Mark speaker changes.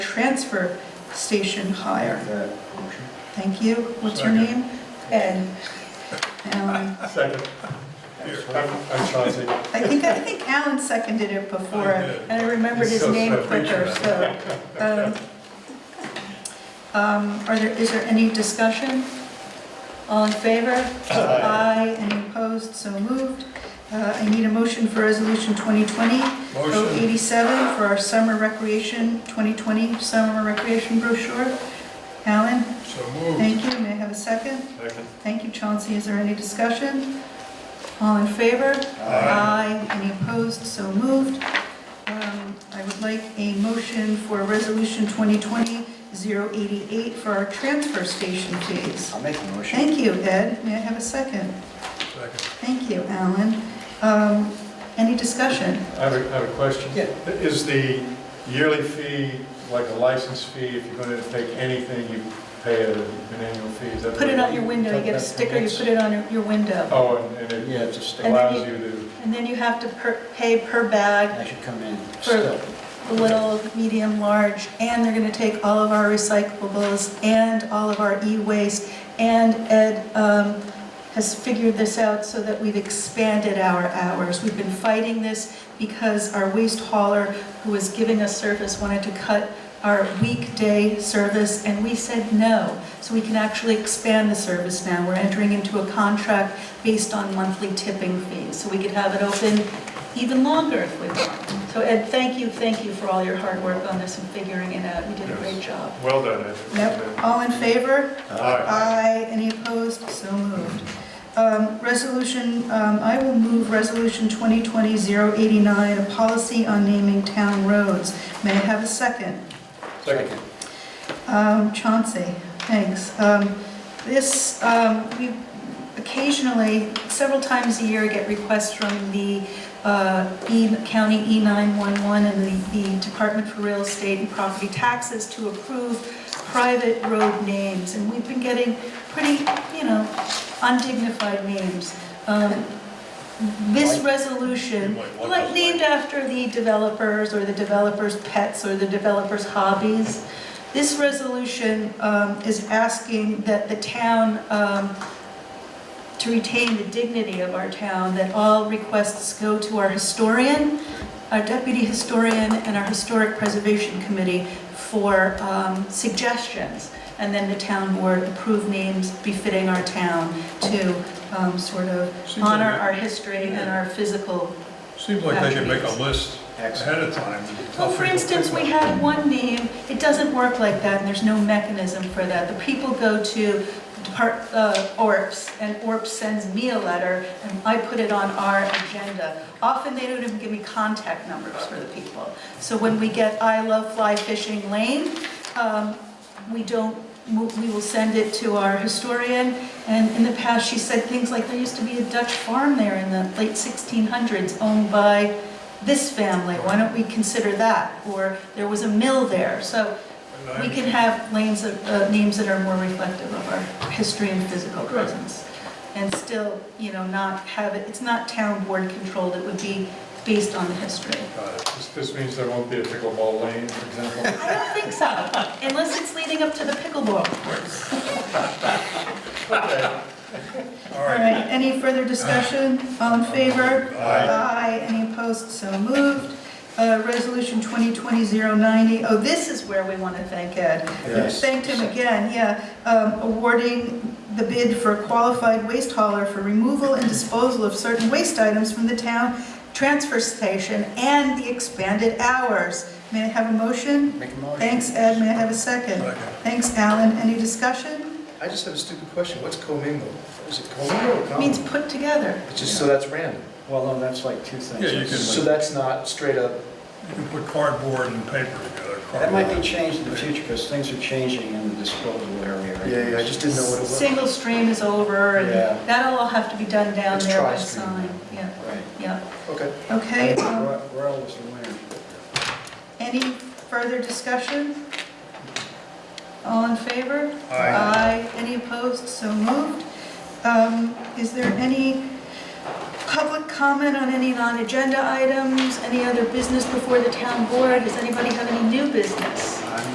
Speaker 1: transfer station hire.
Speaker 2: That motion.
Speaker 1: Thank you. What's your
Speaker 3: Second.
Speaker 1: name? Ed. Alan.
Speaker 3: Second. Here, I'm I'm Chauncey.
Speaker 1: I think, I think Alan seconded it before,
Speaker 3: I did.
Speaker 1: and I remembered
Speaker 3: He's
Speaker 1: his
Speaker 3: so
Speaker 1: name
Speaker 3: slick.
Speaker 1: quicker, so. um, um, Are there, is there any discussion? All in favor? Aye. Any opposed? So moved. Uh, I need a motion for Resolution 2020
Speaker 3: Motion.
Speaker 1: 087 for our summer recreation, 2020 summer recreation brochure. Alan,
Speaker 3: So moved.
Speaker 1: thank you. May I have a second?
Speaker 3: Second.
Speaker 1: Thank you, Chauncey. Is there any discussion? All in favor? Aye. Any opposed? So moved. Um, I would like a motion for Resolution 2020-088 for our transfer station fees.
Speaker 2: I'll make a motion.
Speaker 1: Thank you, Ed. May I have a second?
Speaker 3: Second.
Speaker 1: Thank you, Alan. Um, Any discussion?
Speaker 3: I have a, I have a question.
Speaker 2: Yeah.
Speaker 3: Is the yearly fee like a license fee? If you're going to take anything, you pay a- an annual fee? Is that
Speaker 1: Put it on your window. You get a sticker, you put it on your- your window.
Speaker 3: Oh, and- and it
Speaker 2: Yeah, it's a stick.
Speaker 1: And then
Speaker 3: allows you to,
Speaker 1: And then you have to per- pay per bag,
Speaker 2: I should come in
Speaker 1: For-
Speaker 2: still.
Speaker 1: the little, medium, large, and they're going to take all of our recyclables and all of our e-waste. And Ed um, has figured this out so that we've expanded our hours. We've been fighting this because our waste hauler, who was giving us service, wanted to cut our weekday service, and we said no. So we can actually expand the service now. We're entering into a contract based on monthly tipping fees. So we could have it open even longer if we want. So Ed, thank you, thank you for all your hard work on this and figuring it out. You did a great job.
Speaker 3: well done, I think.
Speaker 1: Yep, all in favor?
Speaker 3: Aye.
Speaker 4: Uh,
Speaker 1: Aye. Any opposed? So moved. Um, Resolution, um, I will move Resolution 2020-089, a policy on naming town roads. May I have a second?
Speaker 3: Second.
Speaker 1: Um, Chauncey, thanks. Um, This, um, we occasionally, several times a year, get requests from the uh, E- County E911 and the the Department for Real Estate and Property Taxes to approve private road names, and we've been getting pretty, you know, undignified names. Um, This resolution, like named after the developers or the developers' pets or the developers' hobbies, this resolution um, is asking that the town, um, to retain the dignity of our town, that all requests go to our historian, our deputy historian, and our historic preservation committee for um, suggestions. And then the town board approve names befitting our town to um, sort of
Speaker 4: Seems
Speaker 1: honor
Speaker 4: like it.
Speaker 1: our history and our physical
Speaker 4: Seems like they could make a list
Speaker 2: Excellent.
Speaker 4: ahead of time.
Speaker 1: Well, for instance, we had one name, it doesn't work like that, and there's no mechanism for that. The people go to Depart, uh, ORPS, and ORPS sends me a letter, and I put it on our agenda. Often, they don't even give me contact numbers for the people. So when we get I Love Fly Fishing Lane, um, we don't, mo- we will send it to our historian. And in the past, she said things like, there used to be a Dutch farm there in the late 1600s owned by this family, why don't we consider that? Or there was a mill there, so we can have lanes, of- uh, names that are more reflective of our history and physical presence. And still, you know, not have it, it's not town board controlled, it would be based on the history.
Speaker 3: Got it. This- This means there won't be a pickleball lane, for example?
Speaker 1: I don't think so, unless it's leading up to the pickleball course.
Speaker 4: All
Speaker 1: All
Speaker 4: right.
Speaker 1: right, any further discussion? All in favor? Aye. Any opposed? So moved. Uh, Resolution 2020-090, oh, this is where we want to thank Ed.
Speaker 2: Yes.
Speaker 1: Thanked him again, yeah. Um, Awarding the bid for qualified waste hauler for removal and disposal of certain waste items from the town transfer station and the expanded hours. May I have a motion?
Speaker 2: Make a motion.
Speaker 1: Thanks, Ed. May I have a second?
Speaker 4: Second.
Speaker 1: Thanks, Alan. Any discussion?
Speaker 5: I just have a stupid question. What's commingled? Is it commingled or
Speaker 1: Means
Speaker 5: commingled?
Speaker 1: put together.
Speaker 5: It's just, so that's random.
Speaker 2: Well, no, that's like two things.
Speaker 4: Yeah, you can-
Speaker 5: So that's not straight up.
Speaker 4: You can put cardboard and paper together.
Speaker 2: That might be
Speaker 4: cardboard.
Speaker 2: changed in the future because things are changing in the disposal area. right now.
Speaker 5: I just didn't know what it was.
Speaker 1: Single stream is over, and
Speaker 2: Yeah.
Speaker 1: that'll all have to be done down
Speaker 5: It's
Speaker 1: there by
Speaker 5: tri-stream
Speaker 1: sign.
Speaker 5: now.
Speaker 1: Yeah,
Speaker 2: Right.
Speaker 1: yeah,
Speaker 5: Okay.
Speaker 1: okay. um,
Speaker 2: Ro- Royal was the winner.
Speaker 1: Any further discussion? All in favor?
Speaker 4: Aye.
Speaker 1: Any opposed? So moved. Um, Is there any public comment on any non-agenda items? Any other business before the town board? Does anybody have any new business?